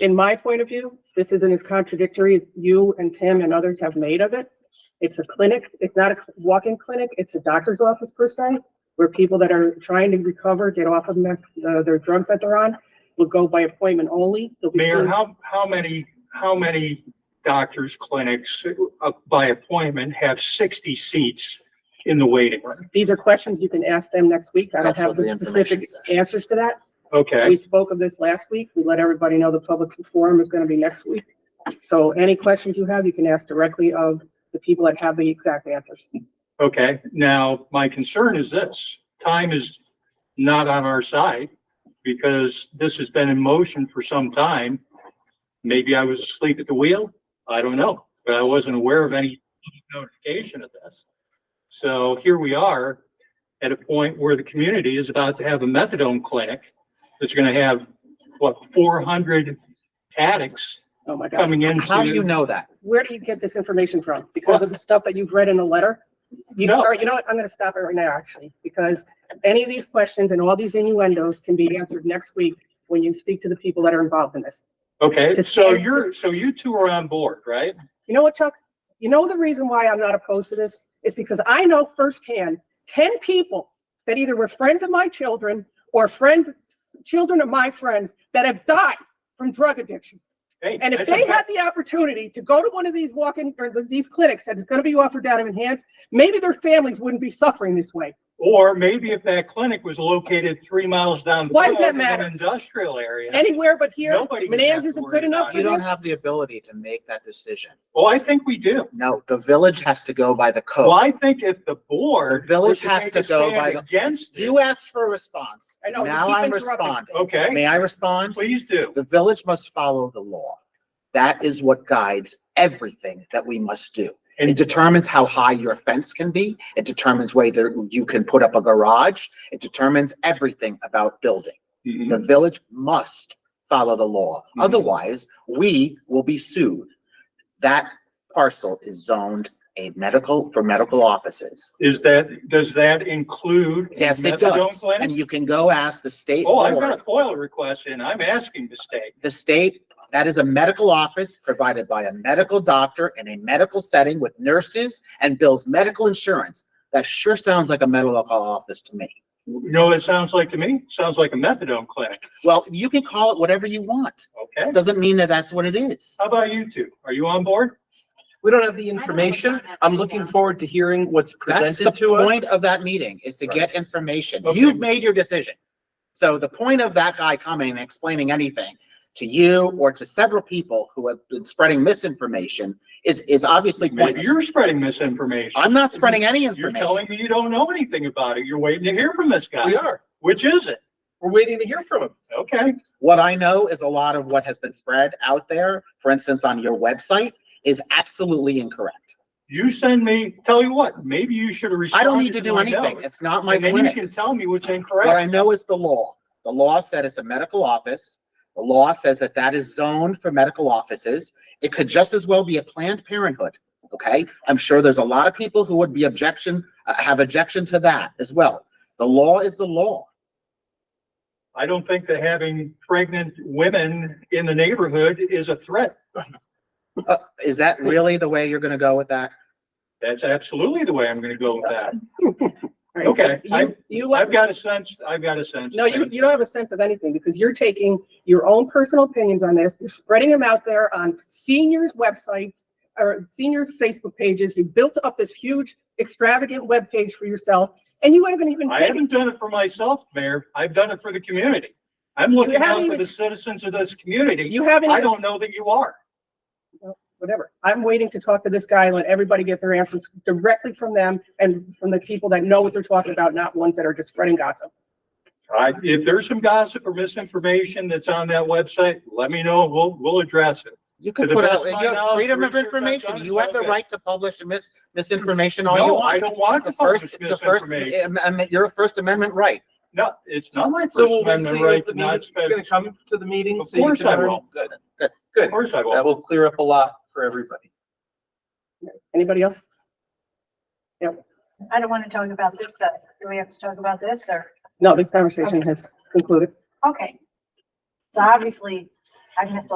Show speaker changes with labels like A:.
A: in my point of view, this isn't as contradictory as you and Tim and others have made of it. It's a clinic, it's not a walk-in clinic, it's a doctor's office per se, where people that are trying to recover, get off of their, uh, their drugs that they're on, will go by appointment only. They'll be
B: Mayor,
A: seen-
B: how, how many, how many doctors' clinics uh, by appointment have sixty seats in the waiting room?
A: These are questions you can ask them next week. I don't
C: That's
A: have
C: what
A: the
C: the
A: specific
C: information session-
A: answers to that. We
B: Okay,
A: spoke of this last week. We let everybody know the public forum is gonna be next week. So any questions you have, you can ask directly of the people that have the exact answers.
B: okay. Now, my concern is this, time is not on our side because this has been in motion for some time. Maybe I was asleep at the wheel, I don't know, but I wasn't aware of any notification of this. So here we are at a point where the community is about to have a methadone clinic that's gonna have, what, four hundred addicts
A: Oh my God.
B: coming in.
C: How do you know that?
A: Where do you get this information from? Because of the stuff that you've read in the letter? You,
B: No.
A: or you know what? I'm gonna stop it right now, actually, because any of these questions and all these innuendos can be answered next week when you speak to the people that are involved in this.
B: Okay,
A: to
B: so
A: stand-
B: you're, so you two are on board, right?
A: You know what, Chuck? You know the reason why I'm not opposed to this is because I know firsthand ten people that either were friends of my children or friends, children of my friends that have died from drug addiction.
B: Hey,
A: And if
B: that's a
A: they
B: bad-
A: had the opportunity to go to one of these walk-in or the- these clinics that is going to be offered down in Manhattan, maybe their families wouldn't be suffering this way.
B: Or maybe if that clinic was located three miles down. the
A: Why does
B: road
A: that
B: in an
A: matter?
B: Industrial area.
A: Anywhere but here,
B: Nobody would have
A: Manans
B: to
A: isn't
B: worry
A: good enough
B: about
A: for
C: You
B: it.
C: don't
A: this.
C: have the ability to make that decision.
B: Well, I think we do.
C: No, the village has to go by the
B: Well,
C: code.
B: I think if the board.
C: The village
B: was
C: has
B: take
C: to
B: a
C: go
B: stand
C: by the-
B: Against it.
C: You asked for a response.
A: I know, you
C: Now
A: keep
C: I'm
A: interrupting.
C: responding.
B: Okay,
C: May I respond?
B: please do.
C: The village must follow the law. That is what guides everything that we must do. It
B: And
C: determines how high your fence can be. It determines whether you can put up a garage. It determines everything about building.
B: Mhm.
C: The village must follow the law.
B: Mhm.
C: Otherwise, we will be sued. That parcel is zoned a medical, for medical offices.
B: is that, does that include? a
C: Yes, it
B: methadone
C: does.
B: clinic?
C: And you can go ask the state
B: Oh, I've got
C: board,
B: a FOIL request in. I'm asking the state.
C: the state, that is a medical office provided by a medical doctor in a medical setting with nurses and bills medical insurance. That sure sounds like a medical office to me.
B: You know what it sounds like to me? Sounds like a methadone clinic,
C: Well, you can call it whatever you want.
B: okay?
C: It doesn't mean that that's what it is.
B: How about you two? Are you on board?
D: We don't have the
E: don't have
D: information.
E: that
D: I'm looking
E: right now.
D: forward to hearing what's
C: That's the
D: presented to us.
C: point of that meeting, is to get information.
B: Okay.
C: You've made your decision. So the point of that guy coming and explaining anything to you or to several people who have been spreading misinformation is, is obviously
B: Maybe
C: pointless.
B: you're spreading misinformation.
C: I'm not spreading any
B: You're
C: information.
B: telling me you don't know anything about it. You're waiting to hear from this guy,
D: We are.
B: which is it?
D: We're waiting to hear from him.
B: Okay,
C: What I know is a lot of what has been spread out there, for instance, on your website, is absolutely incorrect.
B: you send me, tell you what, maybe you should have
C: I
B: responded.
C: don't need to do
B: my
C: anything.
B: note.
C: It's not my
B: And then you
C: clinic.
B: can tell me what's
C: What
B: incorrect.
C: I know is the law. The law said it's a medical office. The law says that that is zoned for medical offices. It could just as well be a Planned Parenthood, okay? I'm sure there's a lot of people who would be objection, uh, have objection to that as well. The law is the law.
B: I don't think that having pregnant women in the neighborhood is a threat.
C: Uh, Is that really the way you're gonna go with that?
B: That's absolutely the way I'm gonna go with that.
A: All right, so
B: Okay,
A: you-
B: I-
A: You, let-
B: I've got a sense, I've got a sense.
A: No, you, you don't have a sense of anything because you're taking your own personal opinions on this. You're spreading them out there on seniors' websites or seniors' Facebook pages. You built up this huge extravagant webpage for yourself and you haven't even.
B: I haven't done it for myself, Mayor. I've done it for the community. I'm looking out
A: haven't
B: for
A: even-
B: the citizens of this community.
A: You haven't,
B: I
A: even-
B: don't know that you are.
A: whatever. I'm waiting to talk to this guy and let everybody get their answers directly from them and from the people that know what they're talking about, not ones that are just spreading gossip.
B: I, if there's some gossip or misinformation that's on that website, let me know. We'll, we'll address it.
C: You can
B: To the
C: put
B: best
C: out,
B: of
C: you
B: my
C: have
B: knowledge,
C: freedom
B: research
C: of
B: I've
C: information.
B: done is
C: You have the
B: okay.
C: right to publish mis, misinformation all you
B: No, I
C: want.
B: don't want
C: It's
B: to
C: the first,
B: publish
C: it's the first,
B: misinformation.
C: am- am- your First Amendment right.
B: No, it's not my First
D: So will we see
B: Amendment
D: you
B: right
D: at
B: to
D: the
B: not
D: meeting? You're
B: spend.
D: gonna come to the meeting?
B: Of
D: so you
B: course
D: can
B: I
D: learn?
B: will.
D: Good.
B: Of course I
D: That
B: will.
D: will clear up a lot for everybody.
A: Anybody else?
E: I don't want to talk about this, though. Do we have to talk about this or?
A: No, this conversation has concluded.
E: Okay. So obviously, I missed a